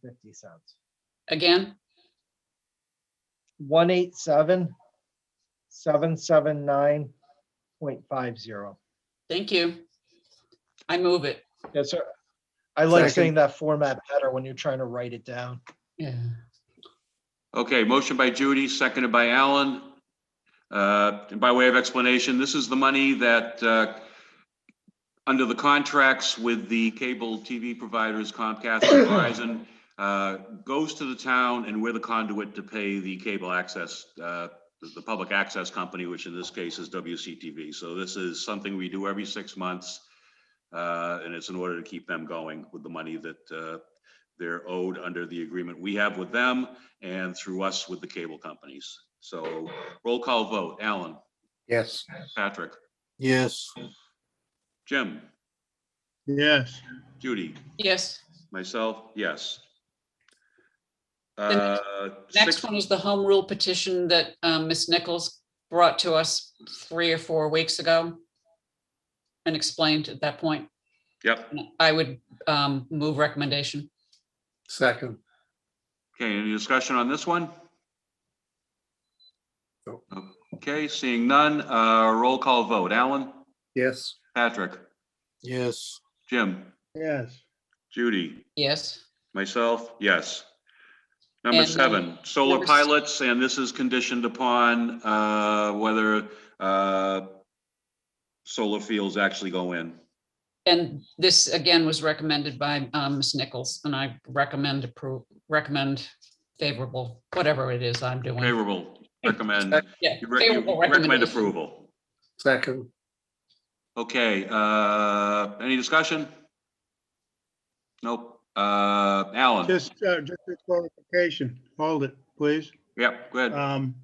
fifty cents. Again, One eight seven, seven seven nine point five zero. thank you. I move it. Yes, sir. I like Second. saying that format better when you're trying to write it down. Yeah. Okay, motion by Judy, seconded by Alan. Uh, By way of explanation, this is the money that, uh, under the contracts with the cable TV providers Comcast and Verizon, uh, goes to the town and we're the conduit to pay the cable access, uh, the the public access company, which in this case is WCTV. So this is something we do every six months. uh, And it's in order to keep them going with the money that uh, they're owed under the agreement we have with them and through us with the cable companies. So roll call vote, Alan, Yes. Patrick, Yes. Jim, yes, Judy, Yes, myself, yes. The next- Uh, next six- one is the home rule petition that um, Ms. Nichols brought to us three or four weeks ago and explained at that point. Yep, I would um, move recommendation. Second. okay, any discussion on this one? Nope. Okay, seeing none, uh, roll call vote, Alan, Yes. Patrick, Yes. Jim, yes, Judy, Yes, Myself, yes. Number And, seven, solar number s- pilots, and this is conditioned upon uh, whether uh, solar fields actually go in. and this again was recommended by um, Ms. Nichols, and I recommend approve, recommend favorable, whatever it is I'm doing. Favorable, recommend, Yeah, you re- you favorable recommend recommendation. approval. Second. Okay, uh, any discussion? Nope. Uh, Alan? just, uh, just a clarification, hold it, please. Yep, go ahead. Um,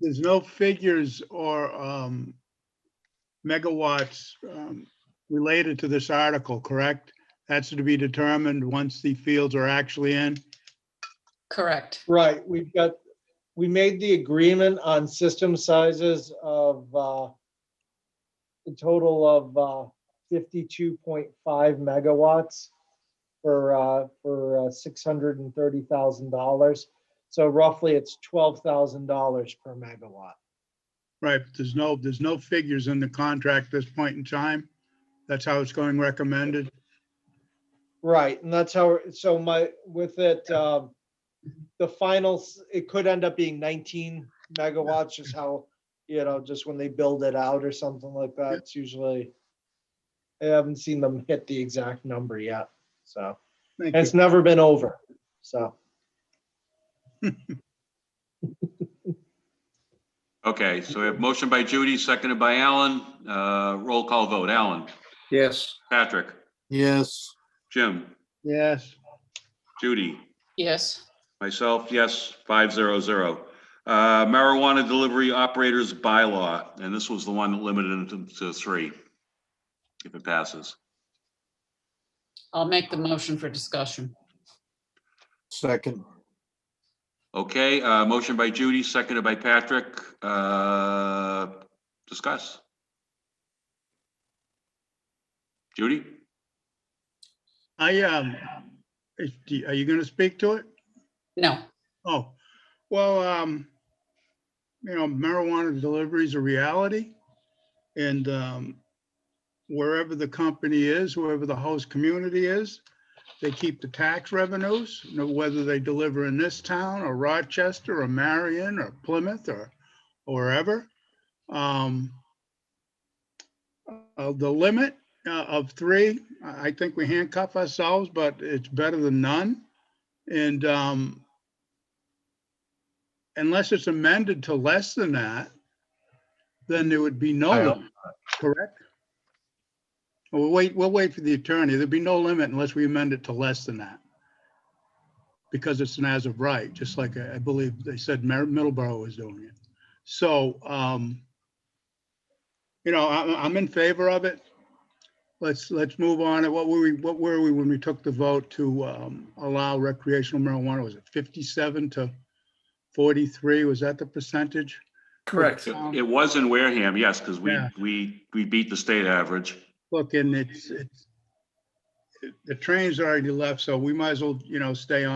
there's no figures or, um, megawatts, um, related to this article, correct? That's to be determined once the fields are actually in. Correct. Right, we've got, we made the agreement on system sizes of uh, a total of uh, 52.5 megawatts for, uh, for uh, $630,000. So roughly, it's $12,000 per megawatt. Right, but there's no, there's no figures in the contract at this point in time. That's how it's going recommended. Right, and that's how, so my, with it, um, the finals, it could end up being nineteen megawatts, just how, you know, just when they build it out or something like that, it's usually. I haven't seen them hit the exact number yet, so, Thank and you. it's never been over, so. Okay, so we have motion by Judy, seconded by Alan. Uh, Roll call vote, Alan, Yes. Patrick, Yes. Jim, Yes, Judy? Yes, Myself, yes, five zero zero. Uh, Marijuana delivery operators bylaw, and this was the one that limited it to three. If it passes. I'll make the motion for discussion. Second. Okay, uh, motion by Judy, seconded by Patrick. Uh, Discuss. Judy? I, um, is- do- are you gonna speak to it? No, Oh, well, um, you know, marijuana delivery is a reality. And, um, wherever the company is, wherever the host community is, they keep the tax revenues, you know, whether they deliver in this town or Rochester or Marion or Plymouth or or wherever. Um, uh, the limit uh, of three, I I think we handcuff ourselves, but it's better than none. And, um, unless it's amended to less than that, then there would be no, I limit, correct? We'll wait, we'll wait for the attorney. There'd be no limit unless we amend it to less than that. Because it's an as of right, just like I I believe they said Mer- Middleborough was doing it. So, um, you know, I, I'm in favor of it. Let's, let's move on. What were we, what were we when we took the vote to, um, allow recreational marijuana? Was it 57 to 43? Was that the percentage? Correct. Um, It was in Wareham, yes, because we, Yeah. we, we beat the state average. Look, and it's, it's, the train's already left, so we might as well, you know, stay on.